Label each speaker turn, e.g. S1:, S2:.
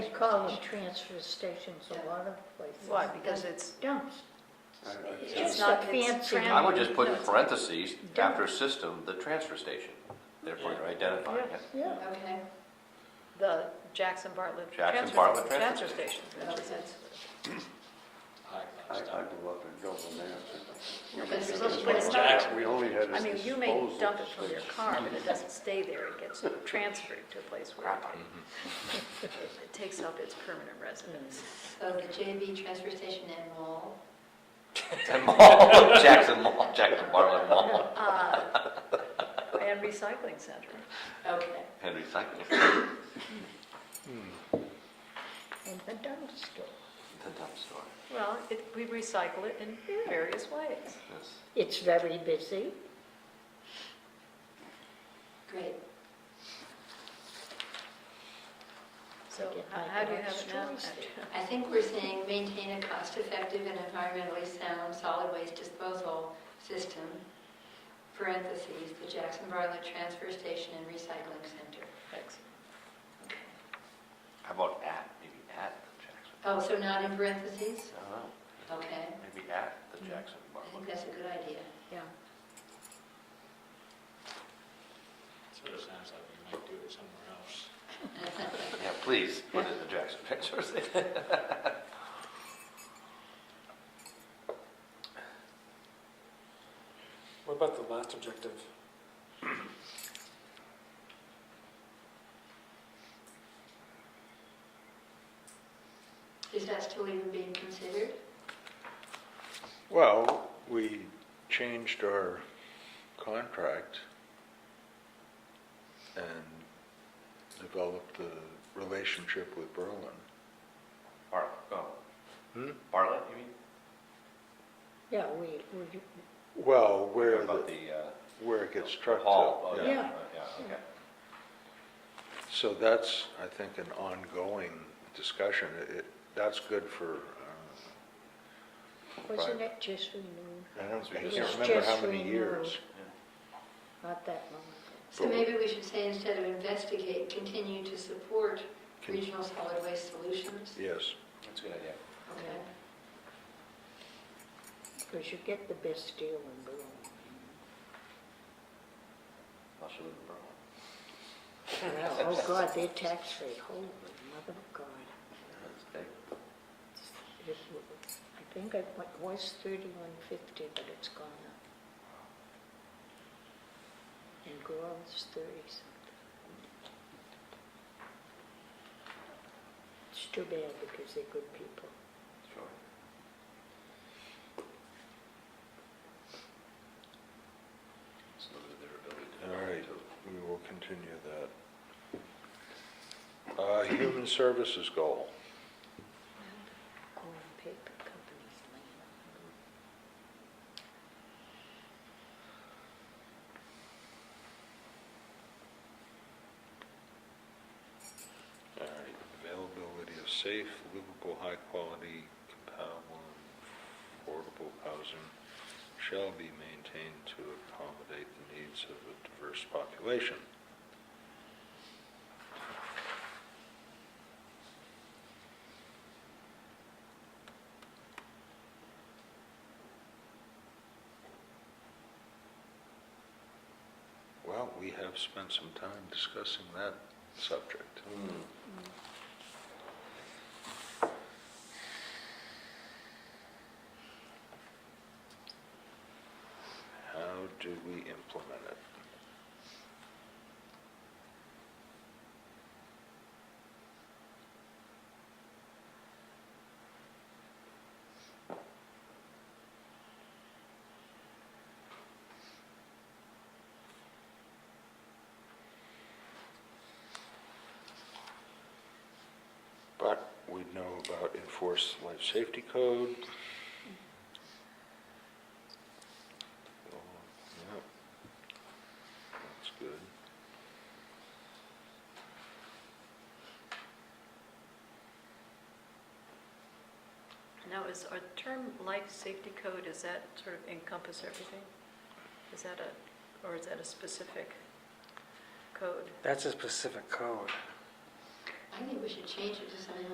S1: call them transfer stations a lot of places.
S2: Why? Because it's,
S1: Dumps.
S2: it's
S1: the
S2: not, it's
S1: fancy-
S2: tran-
S3: I would just put in
S2: No, it's-
S3: parentheses, after system, the transfer station, therefore you're identifying it.
S1: Yeah,
S4: Okay,
S2: the Jackson Bartlett
S3: Jackson
S2: transfer,
S3: Bartlett
S2: transfer
S3: transfer
S2: station.
S4: that makes sense.
S5: I, I grew up in Dublin, there.
S4: But it's supposed to
S2: But it's not-
S5: Jackson, We only had
S2: I
S5: a
S2: mean, you may
S5: disposal
S2: dump it from your
S5: station.
S2: car, but it doesn't stay there, it gets transferred to a place where it- it takes up its permanent residence.
S4: So Oh, the JB transfer station and mall,
S3: And mall, Jackson Mall, Jackson Bartlett Mall,
S2: Uh, And recycling center.
S4: okay.
S3: and recycling. The
S1: and the dump store.
S3: dump store,
S2: Well, it, we recycle it in various ways.
S3: yes.
S1: It's very busy.
S4: Great.
S2: So
S1: Get
S2: how
S1: my
S2: how do you have
S1: garage
S2: it now?
S1: choice.
S4: I think we're saying maintain a cost-effective and environmentally sound solid waste disposal system, parentheses, the Jackson Bartlett Transfer Station and Recycling Center.
S2: Excellent.
S3: How about at, maybe at the Jackson,
S4: Oh, so not in parentheses?
S3: I don't know,
S4: Okay,
S3: maybe at the Jackson
S4: I think
S3: Bartlett.
S4: that's a good idea.
S2: Yeah.
S6: Sort of sounds like we might do it somewhere else.
S3: Yeah, please, put it in the Jackson transfer station.
S7: What about the last objective?
S4: Is that still even being considered?
S5: Well, we changed our contract and developed a relationship with Berlin.
S3: Bartlett, oh,
S5: Hmm?
S3: Bartlett, you mean?
S1: Yeah, we, we,
S5: Well, where,
S3: About
S5: the-
S3: the, uh,
S5: where it gets
S3: the
S5: trucked
S3: hall,
S5: to.
S3: oh,
S1: yeah.
S3: Yeah, okay.
S5: So that's, I think, an ongoing discussion. It- It, that's good for, uh,
S1: wasn't
S5: Right.
S1: it just renewed?
S5: I don't, I
S3: It's
S5: can't remember how
S1: just
S5: many years.
S1: renewed. Not that long
S4: So maybe we should say instead of investigate, continue to support
S5: Con-
S4: regional solid waste solutions?
S5: Yes.
S3: That's a good idea.
S4: Okay.
S1: ago, because you get the best deal in Berlin.
S3: I should live in Berlin.
S1: Oh, God, their tax rate, holy mother of God.
S3: That's big.
S1: It- I think it wa- was thirty-one fifty, but it's gone up. And girls thirty-something. It's too bad because they're good people.
S3: Sure. It's limited their ability to.
S5: All right, we will continue that. Uh, Human services goal.
S1: Growing paper companies, man.
S5: All right, availability of safe, livable, high-quality, compatible, and affordable housing shall be maintained to accommodate the needs of a diverse population. Well, we have spent some time discussing that subject.
S3: Hmm.
S5: How do we implement it? But we know about enforced life safety code. Oh, Yep. That's good.
S2: Now, is our term life safety code, is that sort of encompass everything? Is that a, or is that a specific code?
S7: That's a specific code.
S4: I think we should change it to something